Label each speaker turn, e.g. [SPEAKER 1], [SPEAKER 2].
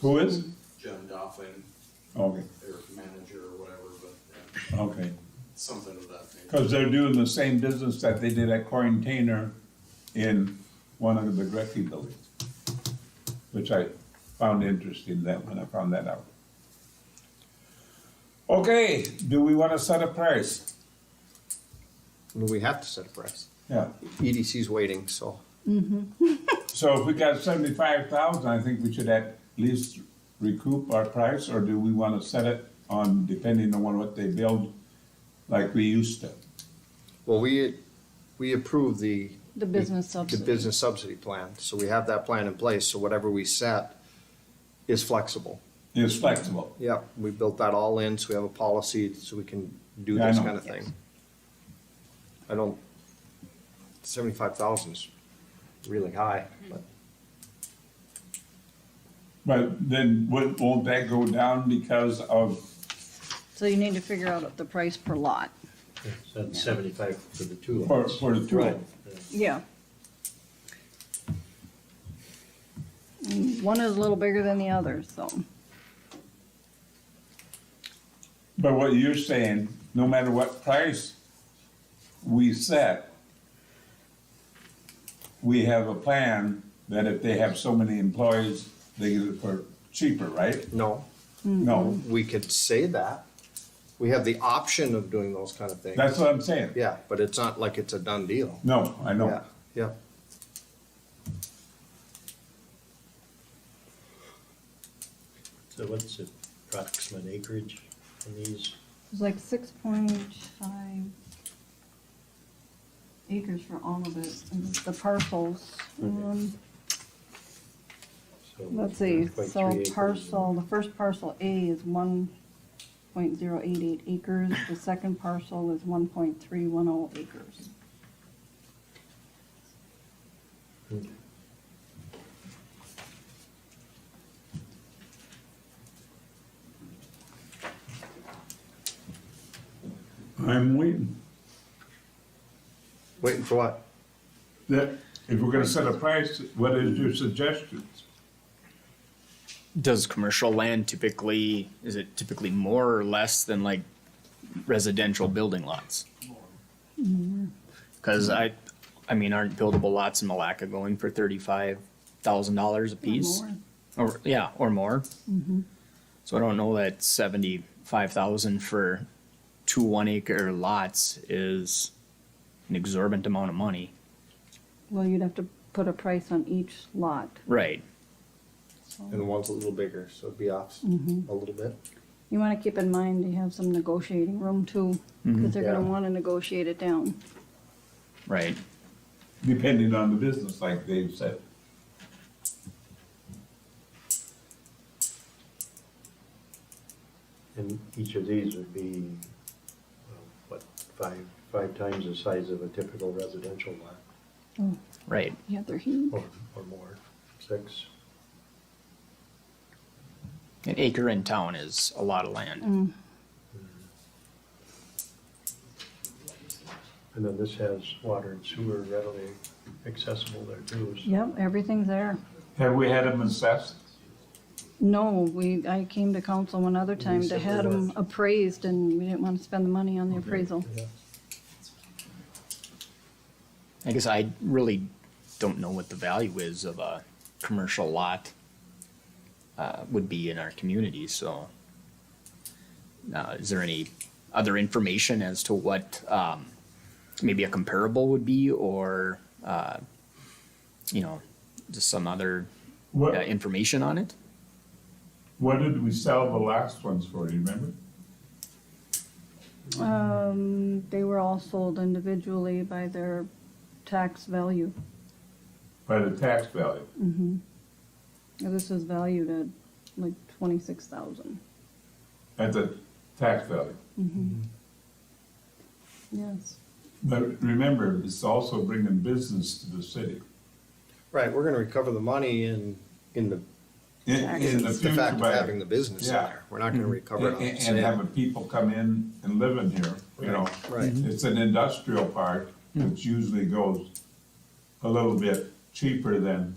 [SPEAKER 1] Who is?
[SPEAKER 2] John Doffin,
[SPEAKER 1] Okay,
[SPEAKER 2] their manager or whatever, but uh,
[SPEAKER 1] okay.
[SPEAKER 2] something of that nature.
[SPEAKER 1] Because they're doing the same business that they did at Quarantainer in one of the McGreckey buildings, which I found interesting that when I found that out. Okay, do we want to set a price?
[SPEAKER 3] Well, we have to set a price.
[SPEAKER 1] Yeah,
[SPEAKER 3] EDC's waiting, so.
[SPEAKER 1] so if we got seventy-five thousand, I think we should at least recoup our price, or do we want to set it on depending on what they build, like we used to?
[SPEAKER 3] Well, we, we approved the,
[SPEAKER 4] The business
[SPEAKER 3] the
[SPEAKER 4] subsidy.
[SPEAKER 3] business subsidy plan, so we have that plan in place, so whatever we set is flexible.
[SPEAKER 1] It's flexible.
[SPEAKER 3] Yep, we built that all in, so we have a policy, so we can do
[SPEAKER 1] Yeah, I
[SPEAKER 3] this
[SPEAKER 1] know.
[SPEAKER 3] kind of thing. I don't, seventy-five thousand's really high, but
[SPEAKER 1] But then won't, won't that go down because of
[SPEAKER 4] So you need to figure out the price per lot.
[SPEAKER 5] So it's seventy-five for the two
[SPEAKER 1] For,
[SPEAKER 5] lots.
[SPEAKER 1] for the two of
[SPEAKER 3] Right.
[SPEAKER 1] them.
[SPEAKER 4] Yeah. One is a little bigger than the other, so.
[SPEAKER 1] But what you're saying, no matter what price we set, we have a plan that if they have so many employees, they get it for cheaper, right?
[SPEAKER 3] no,
[SPEAKER 1] No,
[SPEAKER 3] we could say that. We have the option of doing those kind of things.
[SPEAKER 1] that's what I'm saying.
[SPEAKER 3] Yeah, but it's not like it's a done deal.
[SPEAKER 1] No, I
[SPEAKER 3] Yeah,
[SPEAKER 1] know.
[SPEAKER 3] yeah.
[SPEAKER 5] So what's the approximate acreage in these?
[SPEAKER 4] It's like six point five acres for all of it, and the parcels. um,
[SPEAKER 5] So
[SPEAKER 4] Let's see,
[SPEAKER 5] not quite three
[SPEAKER 4] so
[SPEAKER 5] acres.
[SPEAKER 4] parcel, the first parcel A is one point zero eight eight acres, the second parcel is one point three one oh acres.
[SPEAKER 1] I'm waiting.
[SPEAKER 3] Waiting for what?
[SPEAKER 1] That, if we're gonna set a price, what is your suggestions?
[SPEAKER 6] does commercial land typically is it typically more or less than like residential building lots because i i mean aren't buildable lots in malacca going for $35000 a piece
[SPEAKER 4] More.
[SPEAKER 6] or yeah or more so i don't know that 75000 for two one acre lots is an exorbitant amount of money
[SPEAKER 4] Well, you'd have to put a price on each lot.
[SPEAKER 6] right
[SPEAKER 3] And the one's a little bigger, so it'd be off a little bit.
[SPEAKER 4] You wanna keep in mind you have some negotiating room too,
[SPEAKER 5] Mm-hmm.
[SPEAKER 4] cause they're gonna
[SPEAKER 3] Yeah.
[SPEAKER 4] wanna negotiate it down.
[SPEAKER 6] right
[SPEAKER 1] Depending on the business, like Dave said.
[SPEAKER 5] And each of these would be, uh, what, five, five times the size of a typical residential lot
[SPEAKER 6] right
[SPEAKER 4] Yeah, they're huge.
[SPEAKER 5] or, or more, six.
[SPEAKER 6] an acre in town is a lot of land
[SPEAKER 5] And then this has water and sewer readily accessible there too. so-
[SPEAKER 4] Yep, everything's there.
[SPEAKER 1] Have we had them assessed?
[SPEAKER 4] No, we, I came to council one other time to
[SPEAKER 5] said
[SPEAKER 4] had
[SPEAKER 5] we
[SPEAKER 4] them
[SPEAKER 5] weren't.
[SPEAKER 4] appraised and we didn't wanna spend the money on the appraisal.
[SPEAKER 5] Yeah.
[SPEAKER 6] I guess I really don't know what the value is of a commercial lot uh, would be in our community, so. Uh, is there any other information as to what, um, maybe a comparable would be or, uh, you know, just some other uh,
[SPEAKER 1] What,
[SPEAKER 6] information on it?
[SPEAKER 1] what did we sell the last ones for, you remember?
[SPEAKER 4] Um, they were all sold individually by their tax value.
[SPEAKER 1] By the tax value.
[SPEAKER 4] Now, This was valued at like twenty-six thousand.
[SPEAKER 1] at the tax value.
[SPEAKER 4] Yes.
[SPEAKER 1] But remember, it's also bringing business to the city.
[SPEAKER 3] Right, we're gonna recover the money in, in the,
[SPEAKER 1] In, in the
[SPEAKER 3] the
[SPEAKER 1] future,
[SPEAKER 3] fact
[SPEAKER 1] by-
[SPEAKER 3] of having the business in
[SPEAKER 1] Yeah.
[SPEAKER 3] there. We're not gonna recover it
[SPEAKER 1] and,
[SPEAKER 3] on the
[SPEAKER 1] and and
[SPEAKER 3] sale.
[SPEAKER 1] having people come in and live in here, you know.
[SPEAKER 3] Right.
[SPEAKER 1] It's an industrial park, which usually goes a little bit cheaper than